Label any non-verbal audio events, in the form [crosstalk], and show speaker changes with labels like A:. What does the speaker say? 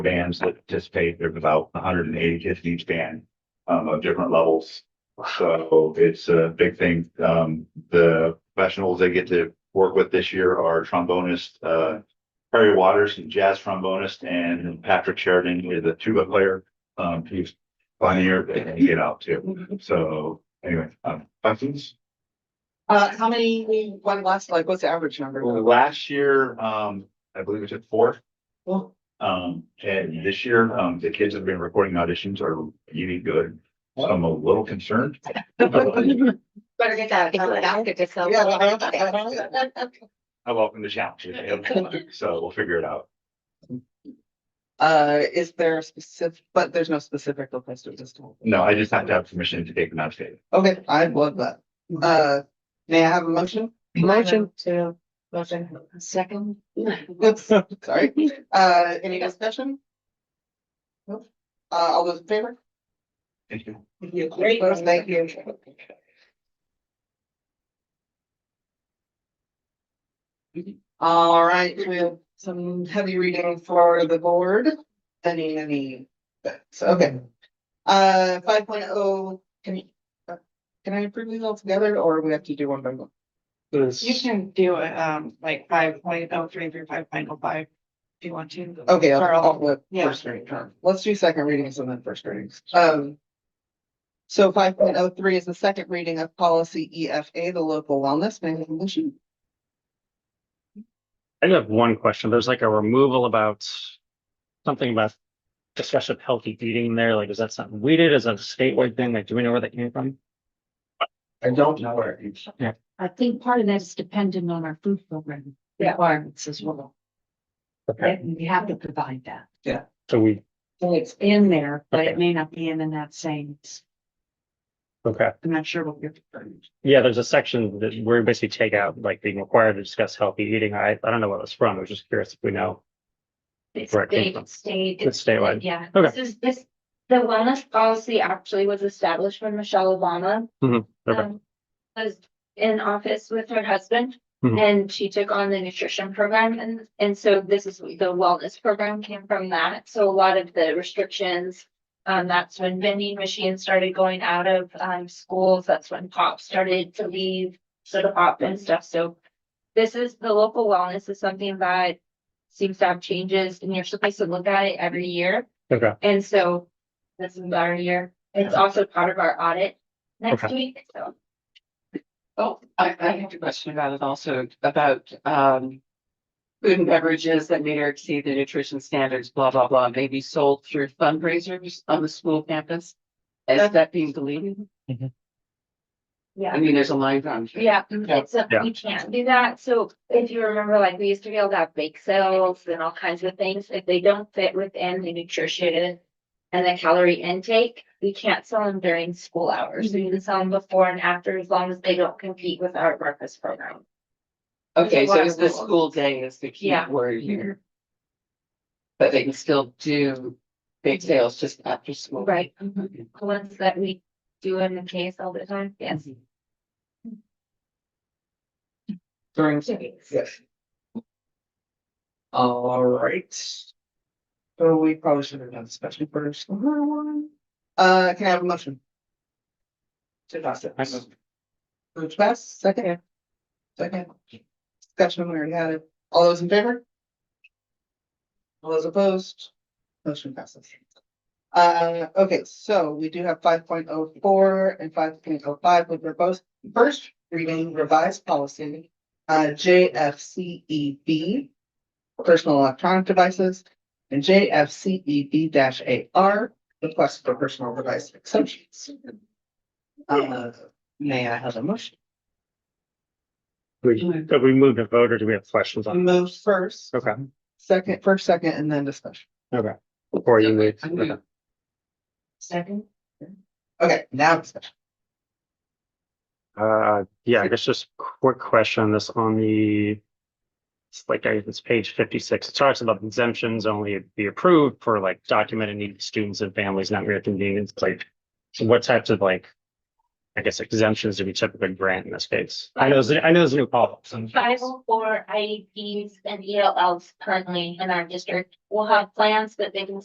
A: bands that participate. There's about hundred and eighty kids in each band um, of different levels. So it's a big thing. Um, the professionals they get to work with this year are trombonist, uh, Perry Waters, a jazz trombonist, and Patrick Sheridan, who is a tuba player. Um, he's funnier than he get out too. So anyway, um, questions?
B: Uh, how many, one last, like, what's the average number?
A: Well, Last year, um, I believe it's at fourth.
B: Well,
A: Um, and this year, um, the kids that have been recording auditions are really good. So I'm a little concerned. I
C: Better get that,
B: Yeah.
C: that's good to sell.
B: [laughs]
A: welcome the challenge. So we'll figure it out.
B: Uh, is there a specific, but there's no specific request at this time.
A: No, I just have to have permission to take them out of state.
B: Okay, I love that. Uh, may I have a motion? Motion.
C: to. Motion. Second.
B: Oops, sorry. Uh, any discussion? Nope. Uh, all those in favor?
A: Thank you.
B: Opposed? Thank you. All right, we have some heavy reading for the board. Any, any, that's okay. Uh, five can you? uh, Can I approve these all together or we have to do one by one?
D: You can do it, um, like five point oh three through five point oh five, if you want to.
B: Okay, I'll-
D: Or
B: I'll
D: I'll-
B: flip
D: yeah.
B: first reading. Let's do second readings and then first readings. Um. So five point oh three is the second reading of policy EFA, the local wellness management issue.
E: I do have one question. There's like a removal about something about discussion of healthy eating there. Like, is that something we did as a statewide thing? Like, do we know where that came from?
A: I don't know where it's.
F: I think part of that is dependent on our food program
C: Yeah.
F: requirements as well. And we have to provide that.
E: So we,
F: So it's in there, but it
E: Okay.
F: may not be in in that same,
E: okay.
F: I'm not sure what you're referring to.
E: Yeah, there's a section that we're basically take out, like being required to discuss healthy eating. I, I don't know where that's from. I was just curious if we know.
G: It's
E: Right,
G: state,
E: different.
G: state.
E: It's statewide.
G: Yeah,
E: Okay.
G: this is this, the wellness policy actually was established when Michelle Obama.
E: Mhm, okay.
G: um, Was in office with her husband
E: Mhm.
G: and she took on the nutrition program and and so this is the wellness program came from that. So a lot of the restrictions. Um, that's when vending machines started going out of um schools. That's when pop started to leave soda pop and stuff. So this is the local wellness is something that seems to have changes and you're supposed to look at it every year.
E: Okay,
G: And so this is our year. It's also part of our audit next week. So
H: Oh, I, I have a question about it also, about, um. Food and beverages that meet or exceed the nutrition standards, blah, blah, blah, may be sold through fundraisers on the school campus. Is that being deleted? I
G: yeah,
H: mean, there's a line down. here.
G: yeah, it's, a- we can't do that. So if you remember, like we used to be able to have bake sales and all kinds of things. If they don't fit within the nutrition and the calorie intake, we can't sell them during school hours. We can sell them before and after as long as they don't compete with our breakfast program.
H: Okay, so
G: Water
H: it's the
G: rules.
H: school day is the key
G: Yeah.
H: word here. But they can still do big sales just after school.
G: Right. mm-hmm,
H: Okay.
G: The ones that we do in the case all the time, yes.
H: During.
B: Yes. All right. So we probably should have done special first. Uh, can I have a motion? To pass it.
E: I move.
B: Move to pass, second. Second. Discussion, we already had it. All those in favor? All those opposed? Motion passes. Uh, okay, so we do have five point oh four and five point oh five, which are both first reading revised policy uh, JFCEB, E personal electronic devices, and JFCEB AR, request for personal device exceptions. Uh, may I have a motion?
E: we, but we moved a vote or do we have questions on?
B: Move
D: Mm-hmm.
B: first,
E: Okay,
B: second, first, second, and then discussion.
E: okay. Before you move.
H: I knew.
E: okay.
C: Second.
B: Okay, now discussion.
E: Uh, yeah, I guess just quick question, this on the. It's like, I- it's page fifty-six, it talks about exemptions only be approved for like documented needs of students and families not real convenience, like. So what types of like I guess exemptions to be typically grant in this case. I know, there's- I know there's a new policy.
G: Five oh E four IEPs and ELLs currently in our district will have plans that they can